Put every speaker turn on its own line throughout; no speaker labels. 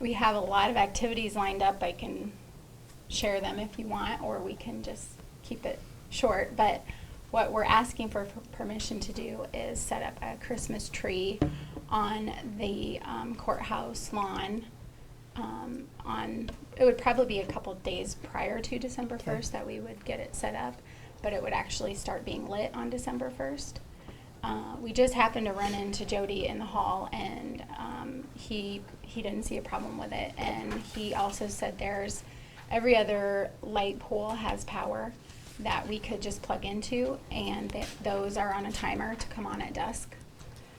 We have a lot of activities lined up. I can share them if you want, or we can just keep it short. But what we're asking for for permission to do is set up a Christmas tree on the um, courthouse lawn. Um, on it would probably be a couple days prior to December
Okay.
first that we would get it set up, but it would actually start being lit on December first. Uh, we just happened to run into Jody in the hall, and um, he he didn't see a problem with it. And he also said there's every other light pole has power that we could just plug into, and that those are on a timer to come on at dusk.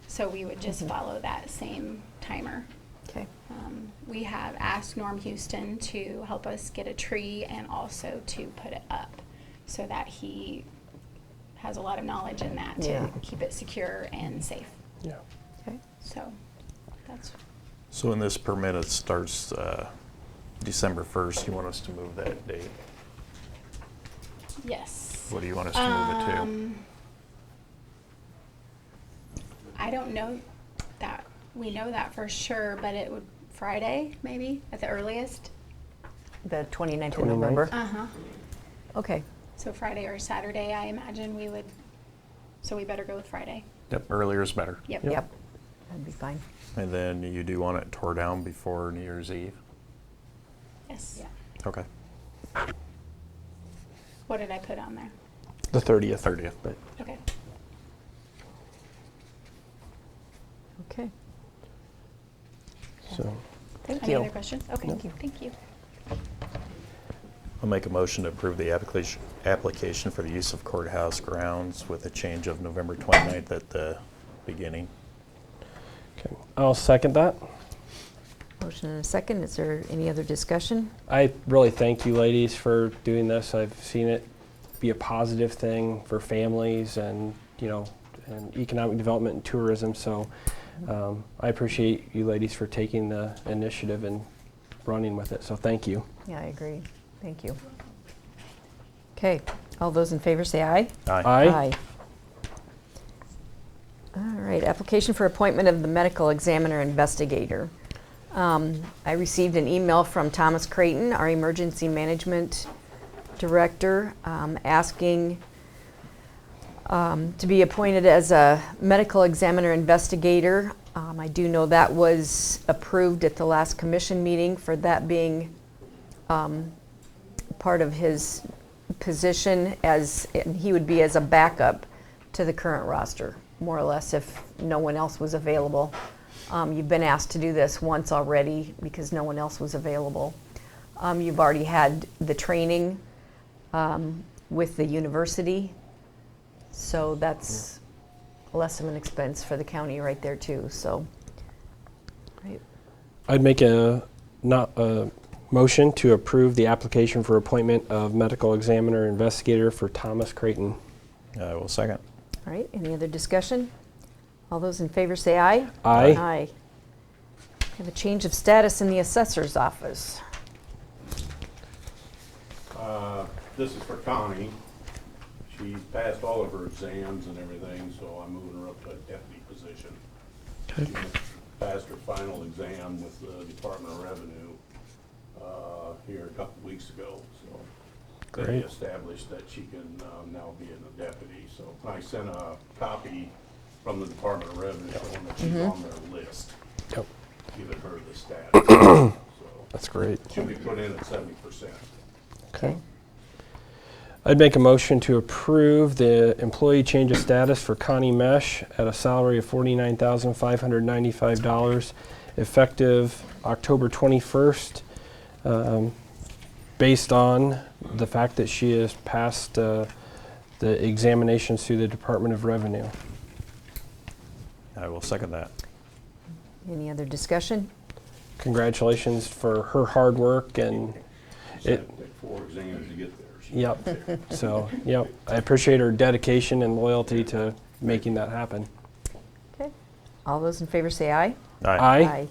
So we would just follow that same timer.
Okay.
Um, we have asked Norm Houston to help us get a tree and also to put it up so that he has a lot of knowledge in that to
Yeah.
keep it secure and safe.
Yeah.
Okay.
So that's
So when this permit, it starts uh, December 1st, you want us to move that date?
yes.
What do you want us to move it to?
Um, I don't know that we know that for sure, but it would Friday maybe at the earliest.
The 29th of November?
Uh huh.
Okay.
So Friday or Saturday, I imagine we would. So we better go with Friday.
Yep, earlier is better.
Yep.
Yep. That'd be fine.
And then you do want it tore down before New Year's Eve?
Yes.
Okay.
What did I put on there?
The 30th.
30th.
But
Okay.
Okay.
so
Thank
Any
you.
other questions? Okay.
Thank you.
Thank you.
I'll make a motion to approve the application, application for the use of courthouse grounds with a change of November 29th at the beginning.
okay. I'll second that.
Motion and a second. Is there any other discussion?
I really thank you, ladies, for doing this. I've seen it be a positive thing for families and you know, and economic development and tourism. So um, I appreciate you, ladies, for taking the initiative and running with it. So thank you.
Yeah, I agree. Thank you. Okay. All those in favor say aye.
Aye.
Aye.
All right, application for appointment of the medical examiner investigator. Um, I received an email from Thomas Creighton, our emergency management director, um, asking um, to be appointed as a medical examiner investigator. Um, I do know that was approved at the last commission meeting for that being um, part of his position as, and he would be as a backup to the current roster, more or less, if no one else was available. Um, You've been asked to do this once already because no one else was available. Um, You've already had the training um, with the university, so that's less of an expense for the county right there too, so. Right.
I'd make a not a motion to approve the application for appointment of medical examiner investigator for Thomas Creighton.
I will second.
All right, any other discussion? All those in favor say aye.
Aye.
Aye. We Have a change of status in the assessor's office.
Uh, This is for Connie. She passed all of her exams and everything, so I'm moving her up to a deputy position. She Passed her final exam with the Department of Revenue uh, here a couple weeks ago, so. They
Great.
established that she can um, now be a deputy, so I sent a copy from the Department of Revenue showing that she's on their list,
Yep,
giving her the status. So
that's great.
She'll be put in at seventy percent.
Okay.
I'd make a motion to approve the employee change of status for Connie Mesh at a salary of forty-nine thousand five hundred ninety-five dollars, effective October twenty-first, um, based on the fact that she has passed uh, the examinations through the Department of Revenue.
I will second that.
Any other discussion?
Congratulations for her hard work and
It
it.
took four exams to get there. She-
Yep. So yep, I appreciate her dedication and loyalty to making that happen.
Okay. All those in favor say aye.
Aye.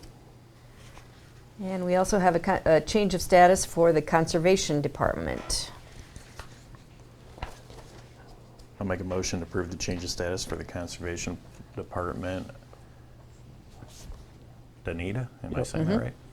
And we also have a co- a change of status for the Conservation Department.
I'll make a motion to approve the change of status for the Conservation Department. Danita, am I
Yep.
saying that right?